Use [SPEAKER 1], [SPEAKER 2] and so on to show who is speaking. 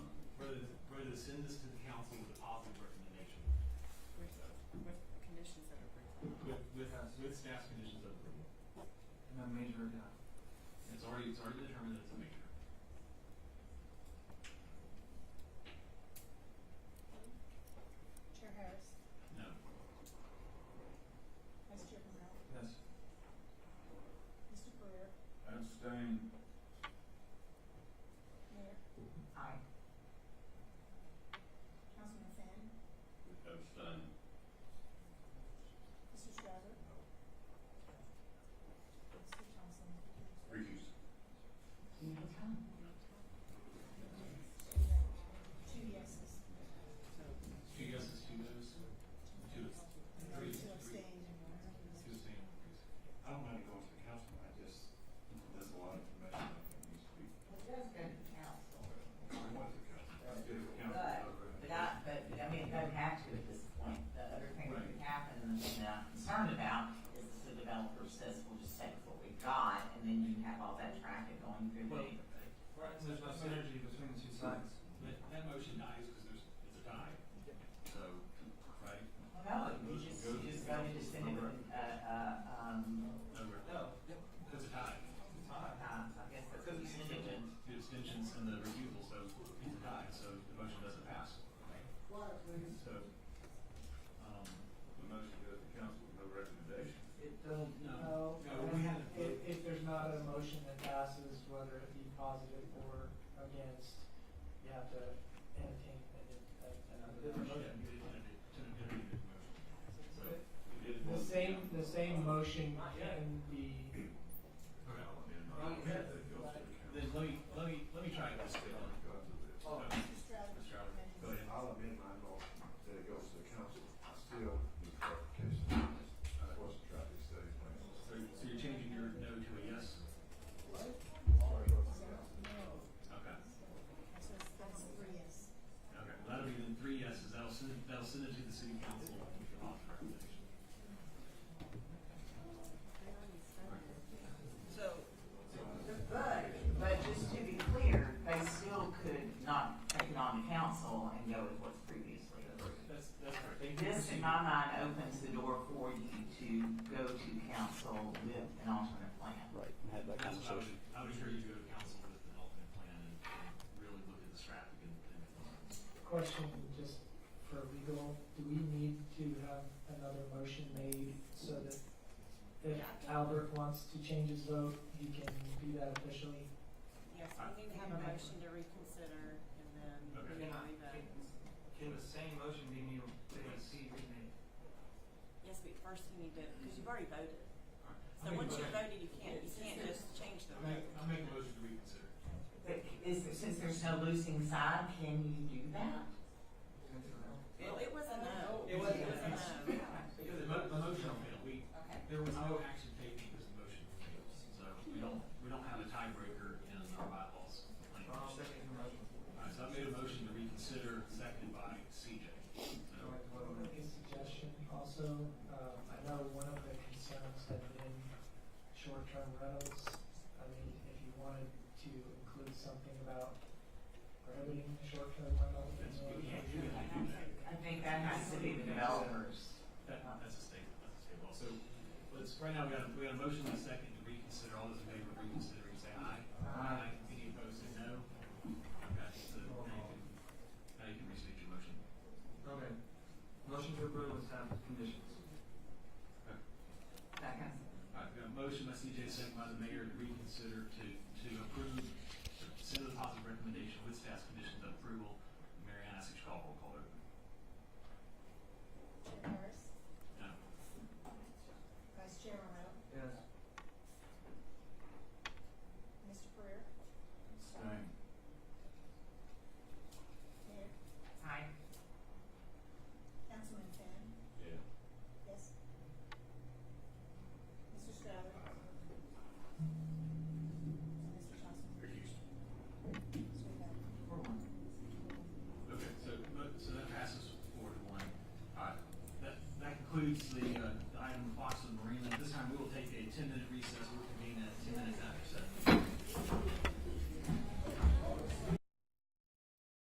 [SPEAKER 1] send this to the council with a positive recommendation,
[SPEAKER 2] with, with the conditions that are approved.
[SPEAKER 1] with, with, uh, with staff conditions of approval.
[SPEAKER 3] And a major,
[SPEAKER 4] uh,
[SPEAKER 3] yeah.
[SPEAKER 1] It's already, it's already determined that it's a major.
[SPEAKER 5] Chair Harris,
[SPEAKER 1] No.
[SPEAKER 5] Vice Chair Morrell,
[SPEAKER 3] Yes.
[SPEAKER 5] Mr. Pereira,
[SPEAKER 3] Abstain.
[SPEAKER 5] Mayor. Aye. Councilman Finn,
[SPEAKER 1] Abstain.
[SPEAKER 5] Mr. Schreiber. Mr. Thompson.
[SPEAKER 1] Recuse.
[SPEAKER 5] Two yeses.
[SPEAKER 1] Two yeses, two noes, two,
[SPEAKER 5] Two
[SPEAKER 1] three, three,
[SPEAKER 5] abstained and one recused.
[SPEAKER 1] two abstained, recuse.
[SPEAKER 6] I don't mind going to council, I just, there's a lot of information I think needs to be.
[SPEAKER 7] It does go to council,
[SPEAKER 6] I want to council. I did it council.
[SPEAKER 7] But- but not, but, I mean, it doesn't have to at this point. The other thing that could happen, and the thing that I'm concerned about, is the developer says, we'll just take what we've got, and then you have all that traffic going through the
[SPEAKER 1] Well-
[SPEAKER 7] neighborhood.
[SPEAKER 1] Right,
[SPEAKER 3] There's no synergy between the two sides.
[SPEAKER 1] That, that motion dies because there's, it's a tie. So, right?
[SPEAKER 7] Well, no, you just, you just voted to send it, with, uh, uh, um,
[SPEAKER 1] No, we're-
[SPEAKER 3] No.
[SPEAKER 1] it's a tie.
[SPEAKER 7] uh, I guess that's
[SPEAKER 1] Because
[SPEAKER 7] what you
[SPEAKER 1] it's
[SPEAKER 7] should do.
[SPEAKER 1] the abstentions and the refusal, so it's a tie, so the motion doesn't pass. So, um,
[SPEAKER 6] The motion goes to council with no recommendation.
[SPEAKER 3] It doesn't,
[SPEAKER 1] No.
[SPEAKER 3] no.
[SPEAKER 1] No, we had a-
[SPEAKER 3] If, if there's not a motion that passes, whether it be positive or against, you have to entertain a- a-
[SPEAKER 1] yeah,
[SPEAKER 3] another
[SPEAKER 1] we did-
[SPEAKER 3] motion.
[SPEAKER 1] we did- we did- we did motion. So,
[SPEAKER 6] It is
[SPEAKER 3] The
[SPEAKER 6] what-
[SPEAKER 3] same, the same motion can be,
[SPEAKER 6] Okay, I'll amend my
[SPEAKER 1] Not
[SPEAKER 6] motion
[SPEAKER 1] yet.
[SPEAKER 6] that it goes to the council.
[SPEAKER 1] Then let me, let me, let me try this.
[SPEAKER 6] I'll go to the-
[SPEAKER 1] Oh,
[SPEAKER 5] Mr. Strouder.
[SPEAKER 1] Mr. Allen, go ahead.
[SPEAKER 6] I'll amend my motion that it goes to the council. I still need clarification. Uh, What's the traffic study plan?
[SPEAKER 1] So, so you're changing your no to a yes?
[SPEAKER 6] Sorry, goes to council.
[SPEAKER 1] Okay,
[SPEAKER 5] So it's, that's three yes.
[SPEAKER 1] okay, well, that'll be then three yeses, that'll send, it- that'll send it to the city council with the positive recommendation.
[SPEAKER 2] So,
[SPEAKER 7] But, but just to be clear, they still could not take it on to council and go with what's previously approved.
[SPEAKER 1] That's, that's correct. Thank you.
[SPEAKER 7] This, in my mind, opens the door for you to go to council with an alternate plan.
[SPEAKER 8] Right, and had that
[SPEAKER 1] That's what I would,
[SPEAKER 8] conversation.
[SPEAKER 1] I would encourage you to go to council with an alternate plan and, and really look at the traffic and, and,
[SPEAKER 3] question just for legal, do we need to have another motion made so that if Albert wants to change his vote, he can do that officially?
[SPEAKER 2] yes, we need to have a motion to reconsider and then
[SPEAKER 1] Okay.
[SPEAKER 2] we can revote.
[SPEAKER 4] Can the same motion be made, be made, remade?
[SPEAKER 2] Yes, but first you need to, because you've already voted.
[SPEAKER 1] I'll
[SPEAKER 2] So
[SPEAKER 1] make a
[SPEAKER 2] once you've
[SPEAKER 1] motion.
[SPEAKER 2] voted, you can't, you can't just change the
[SPEAKER 1] I
[SPEAKER 2] vote.
[SPEAKER 1] make, I make a motion to reconsider.
[SPEAKER 7] But is, since there's no losing side, can you do that?
[SPEAKER 2] Well, it was a no.
[SPEAKER 1] It was-
[SPEAKER 2] a no.
[SPEAKER 1] Because the mo- the motion failed, we,
[SPEAKER 7] Okay.
[SPEAKER 1] there was no action taken because the motion failed, so we don't, we don't have a tiebreaker in our bylaws.
[SPEAKER 4] I'll
[SPEAKER 1] Alright,
[SPEAKER 4] second the motion.
[SPEAKER 1] so I made a motion to reconsider, seconded by CJ. So,
[SPEAKER 3] Make a suggestion also, uh, I know one of the concerns had been short-term rentals. I mean, if you wanted to include something about prohibiting short-term rentals.
[SPEAKER 1] that's, we can't, we can't do that.
[SPEAKER 7] I think that has to be the developers.
[SPEAKER 1] That, that's a statement, that's a statement. So, let's, right now, we got, we got a motion and a second to reconsider, all those in favor of reconsidering, say aye. Aye. Any opposed, say no. Okay, so now you can, now you can restate your motion.
[SPEAKER 4] Okay. Motion to approve with staff conditions.
[SPEAKER 7] Second.
[SPEAKER 1] All right, we got a motion by CJ, second by the mayor to reconsider to, to approve, send the positive recommendation with staff's conditions of approval. Mary Ann, I ask you to call roll call vote.
[SPEAKER 5] Chair Harris,
[SPEAKER 1] No.
[SPEAKER 5] Vice Chair Morrell,
[SPEAKER 4] Yes.
[SPEAKER 5] Mr. Pereira,
[SPEAKER 6] Abstain.
[SPEAKER 5] Mayor.
[SPEAKER 7] Aye.
[SPEAKER 5] Councilman Finn,
[SPEAKER 6] Yeah.
[SPEAKER 5] yes. Mr. Strouder. And Mr. Thompson.
[SPEAKER 6] Recuse.
[SPEAKER 5] Mr. Bell.
[SPEAKER 1] Okay, so, but- so that passes four to one. All right, that, that concludes the